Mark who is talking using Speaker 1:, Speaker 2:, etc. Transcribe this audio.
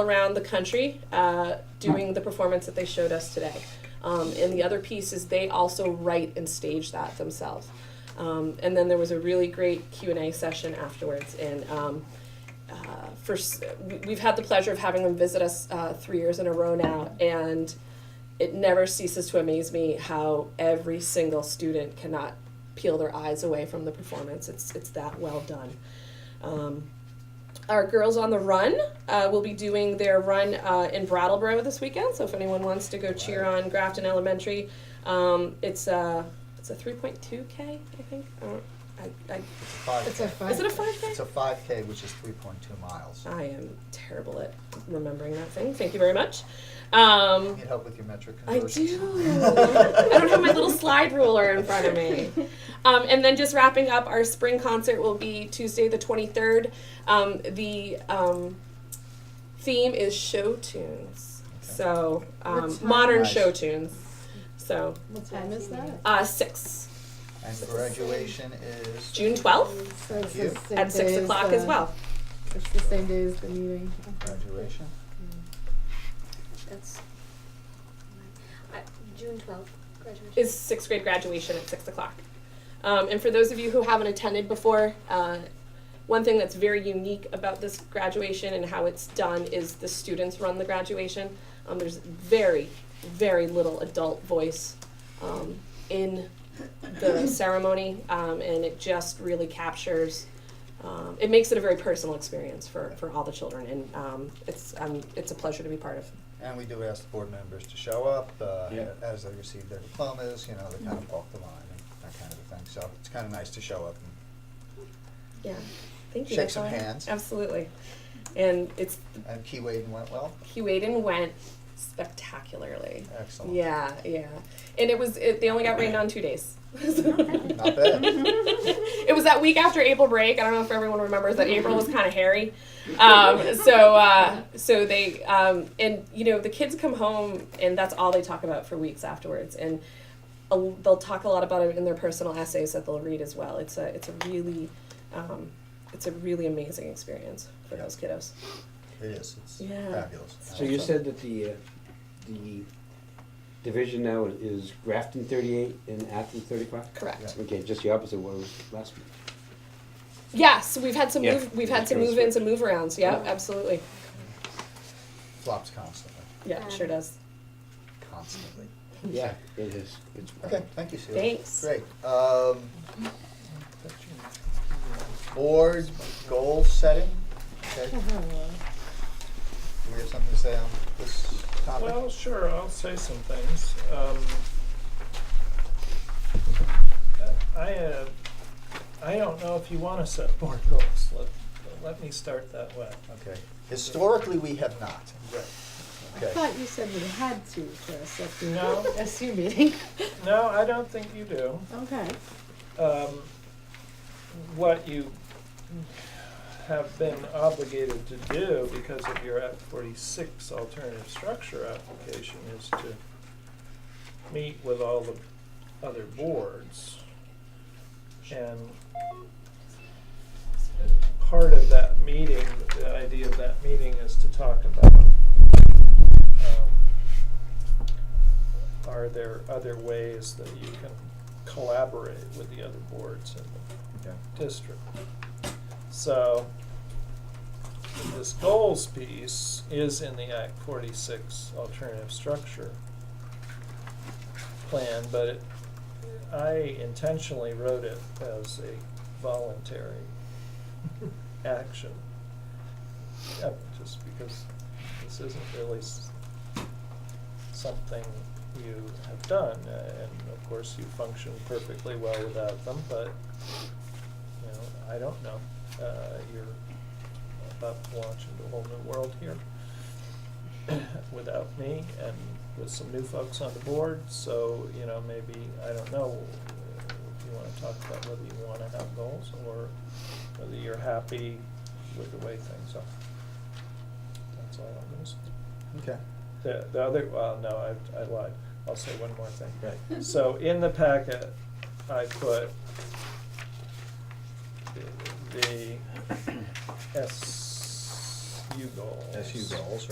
Speaker 1: around the country uh, doing the performance that they showed us today. Um, and the other piece is they also write and stage that themselves. Um, and then there was a really great Q and A session afterwards. And um, uh, for s- we- we've had the pleasure of having them visit us uh, three years in a row now, and it never ceases to amaze me how every single student cannot peel their eyes away from the performance. It's it's that well done. Um, our girls on the run uh, will be doing their run uh, in Brattleboro this weekend. So if anyone wants to go cheer on Grafton Elementary, um, it's a it's a 3.2k, I think. I don't, I, I,
Speaker 2: Five
Speaker 3: It's a
Speaker 2: K.
Speaker 3: five.
Speaker 1: is it a 5k?
Speaker 2: It's a five K, which is three point two miles.
Speaker 1: I am terrible at remembering that thing. Thank you very much. Um,
Speaker 2: Need help with your metric
Speaker 1: I
Speaker 2: conversions?
Speaker 1: do. I don't have my little slide ruler in front of me. Um, and then just wrapping up, our spring concert will be Tuesday, the 23rd. Um, the um, theme is show tunes. So, um,
Speaker 3: What time?
Speaker 1: modern
Speaker 2: Nice.
Speaker 1: show tunes. So,
Speaker 3: What time is that?
Speaker 1: uh, 6,
Speaker 2: And graduation is?
Speaker 1: June 12th
Speaker 3: So it's the
Speaker 2: Yeah.
Speaker 3: same
Speaker 1: at 6
Speaker 3: day as
Speaker 1: o'clock
Speaker 3: the-
Speaker 1: as well.
Speaker 3: It's the same day as the meeting. Okay.
Speaker 2: Graduation.
Speaker 4: That's I, June twelfth graduation.
Speaker 1: is sixth grade graduation at six o'clock. Um, and for those of you who haven't attended before, uh, one thing that's very unique about this graduation and how it's done is the students run the graduation. Um, there's very, very little adult voice um, in the ceremony, um, and it just really captures. Um, it makes it a very personal experience for, for all the children, and um, it's um, it's a pleasure to be part of.
Speaker 2: And we do ask the board members to show up, uh,
Speaker 5: Yeah.
Speaker 2: as they receive their diplomas, you know, they kind of walk the line and that kind of a thing. So it's kind of nice to show up and
Speaker 1: Yeah, thank you.
Speaker 2: Shake
Speaker 1: That's
Speaker 2: some
Speaker 1: all I have.
Speaker 2: hands.
Speaker 1: Absolutely, and it's
Speaker 2: And Key Waden went well?
Speaker 1: He weighed in went spectacularly.
Speaker 2: Excellent.
Speaker 1: Yeah, yeah. And it was it, they only got rained on two days.
Speaker 2: Not bad.
Speaker 1: it was that week after April break. I don't know if everyone remembers that April was kind of hairy. Um, so uh, so they um, and you know the kids come home and that's all they talk about for weeks afterwards and a, they'll talk a lot about it in their personal essays that they'll read as well. It's a it's a really um, it's a really amazing experience for those kiddos.
Speaker 2: It is, it's
Speaker 1: Yeah.
Speaker 2: fabulous.
Speaker 5: So you said that the, uh, the division now is Grafton thirty-eight and Athens thirty-five?
Speaker 1: Correct.
Speaker 2: Yeah.
Speaker 5: Okay, just the opposite of what it was last week.
Speaker 1: Yes, we've had some
Speaker 5: Yeah.
Speaker 1: move, we've had
Speaker 5: That's
Speaker 1: some
Speaker 5: kinda
Speaker 1: move ins
Speaker 5: sweet.
Speaker 1: and move arounds. Yeah,
Speaker 5: Yeah.
Speaker 1: absolutely.
Speaker 2: Flops constantly,
Speaker 1: Yeah, it sure does.
Speaker 2: constantly.
Speaker 5: Yeah, it is. It's-
Speaker 2: Okay, thank you, Sue.
Speaker 1: Mm-hmm. Thanks.
Speaker 2: Great. Um, board goal setting.
Speaker 3: Oh,
Speaker 2: Okay,
Speaker 3: Mm-hmm.
Speaker 2: do we have something to say on this topic?
Speaker 6: Well, sure, I'll say some things. Um, I, uh, I don't know if you want to set board goals. Let, let me start that way.
Speaker 2: Okay. Historically, we have not.
Speaker 3: I
Speaker 2: Okay.
Speaker 3: thought you said we had to for a SU,
Speaker 6: No.
Speaker 3: SU meeting.
Speaker 6: No, I don't think you do.
Speaker 3: Okay.
Speaker 6: Um, What you have been obligated to do because of your Act 46 alternative structure application is to meet with all the other boards. And part of that meeting, the idea of that meeting is to talk about, um, are there other ways that you can collaborate with the other boards in
Speaker 2: Okay.
Speaker 6: the district? So, this goals piece is in the Act forty-six alternative structure plan, but it, I intentionally wrote it as a voluntary action. Uh, Just because this isn't really s- something you have done, uh, and of course you function perfectly well without them, but, you know, I don't know. Uh, You're about to launch into a whole new world here without me and with some new folks on the board, so, you know, maybe, I don't know, uh, if you wanna talk about whether you wanna have goals or whether you're happy with the way things are. That's all I'm gonna say.
Speaker 2: Okay.
Speaker 6: The, the other, well, no, I, I lied. I'll say one more thing. So in the packet, I put the- the SU goals.
Speaker 2: SU goals,